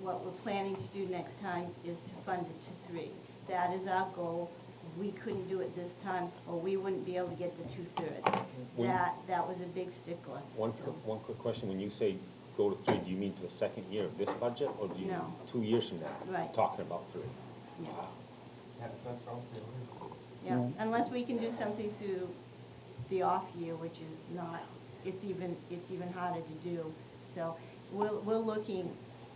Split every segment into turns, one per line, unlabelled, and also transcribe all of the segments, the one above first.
what we're planning to do next time is to fund it to three. That is our goal. We couldn't do it this time, or we wouldn't be able to get the two-thirds.
When-
That, that was a big stickler.
One,
so.
quick- one quick question, when you say go to three, do you mean for the second year of this budget, or do you,
No.
two years from now?
Right.
Talking about three?
Yeah.
Wow.
Yeah, unless we can do something through the off year, which is not, it's even, it's even harder to do. So we're, we're looking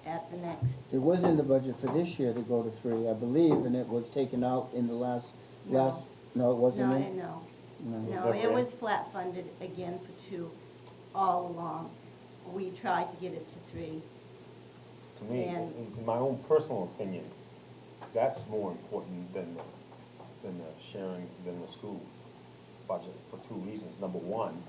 at the next,
It was in the budget for this year to go to three, I believe, and it was taken out in the last,
No.
last, no, it wasn't
no,
in?
no. No,
No.
it was flat funded again for two all along. We tried to get it to three.
To me,
And-
in in my own personal opinion, that's more important than the, than the sharing, than the school budget, for two reasons. Number one,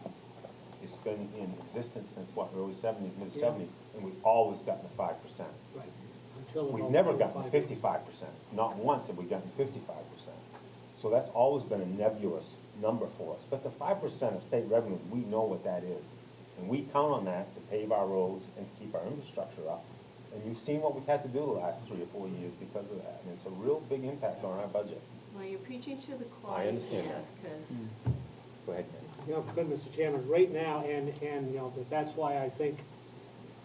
it's been in existence since what, early seventies, mid
Yeah.
seventies, and we've always gotten the five percent.
Right. Until about
We've never
five
gotten
years.
fifty-five percent, not once have we gotten fifty-five percent. So that's always been a nebulous number for us, but the five percent of state revenues, we know what that is. And we count on that to pave our roads and to keep our infrastructure up. And you've seen what we've had to do the last three or four years because of that, and it's a real big impact on our budget.
Well, you're preaching to the choir.
understand that.
Hmm.
Because,
Go ahead, Ken.
You know, good, Mr. Chairman, right now, and, and, you know, that- that's why I think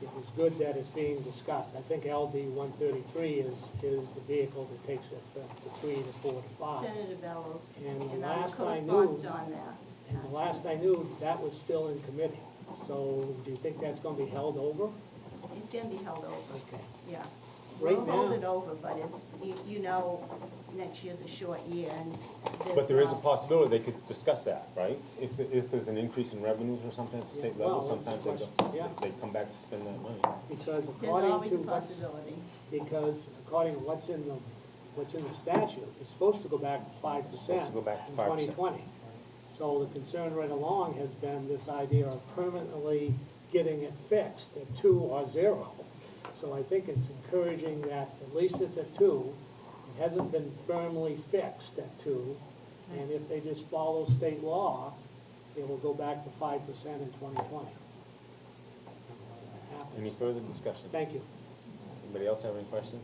it was good that it's being discussed. I think LD one thirty-three is, is the vehicle that takes it to to three to four to five.
Senator Bellows
And the
and I
last I knew-
co-sponsored on that.
And the last I knew, that was still in committee. So do you think that's gonna be held over?
It's gonna be held over.
Okay.
Yeah.
Right
We'll hold
now-
it over, but it's, you, you know, next year's a short year and.
But there is a possibility they could discuss that, right? If, if there's an increase in revenues or something at the
Yeah,
state
well,
level,
that's the
sometimes they,
question,
go-
yeah.
they come back to spend that money.
Because
There's
according
always
to
a
what's,
possibility.
because according to what's in the, what's in the statute, it's supposed to go back to five percent.
Supposed to go back to
in
5%.
Twenty twenty. So the concern right along has been this idea of permanently getting it fixed at two or zero. So I think it's encouraging that at least it's at two, it hasn't been firmly fixed at two. And if they just follow state law, it will go back to five percent in twenty twenty.
Any further discussion?
Thank you.
Anybody else have any questions?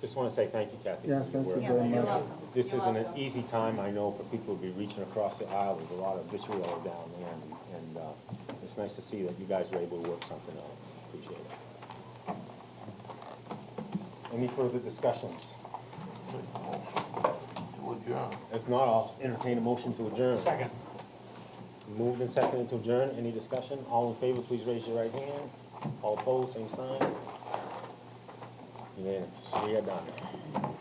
Just want to say thank you, Kathy.
Yeah,
for your
thank you
work.
Yeah, very
you're much. welcome.
This
You're
isn't an
welcome.
easy time, I know, for people to be reaching across the aisle. There's a lot of vitriol down there, and- and uh, it's nice to see that you guys were able to work something out. Appreciate it. Any further discussions?
To adjourn.
If not, I'll entertain a motion to adjourn.
Second.
Moved and seconded to adjourn. Any discussion? All in favor, please raise your right hand. All opposed, same sign. Unanimous. We are done.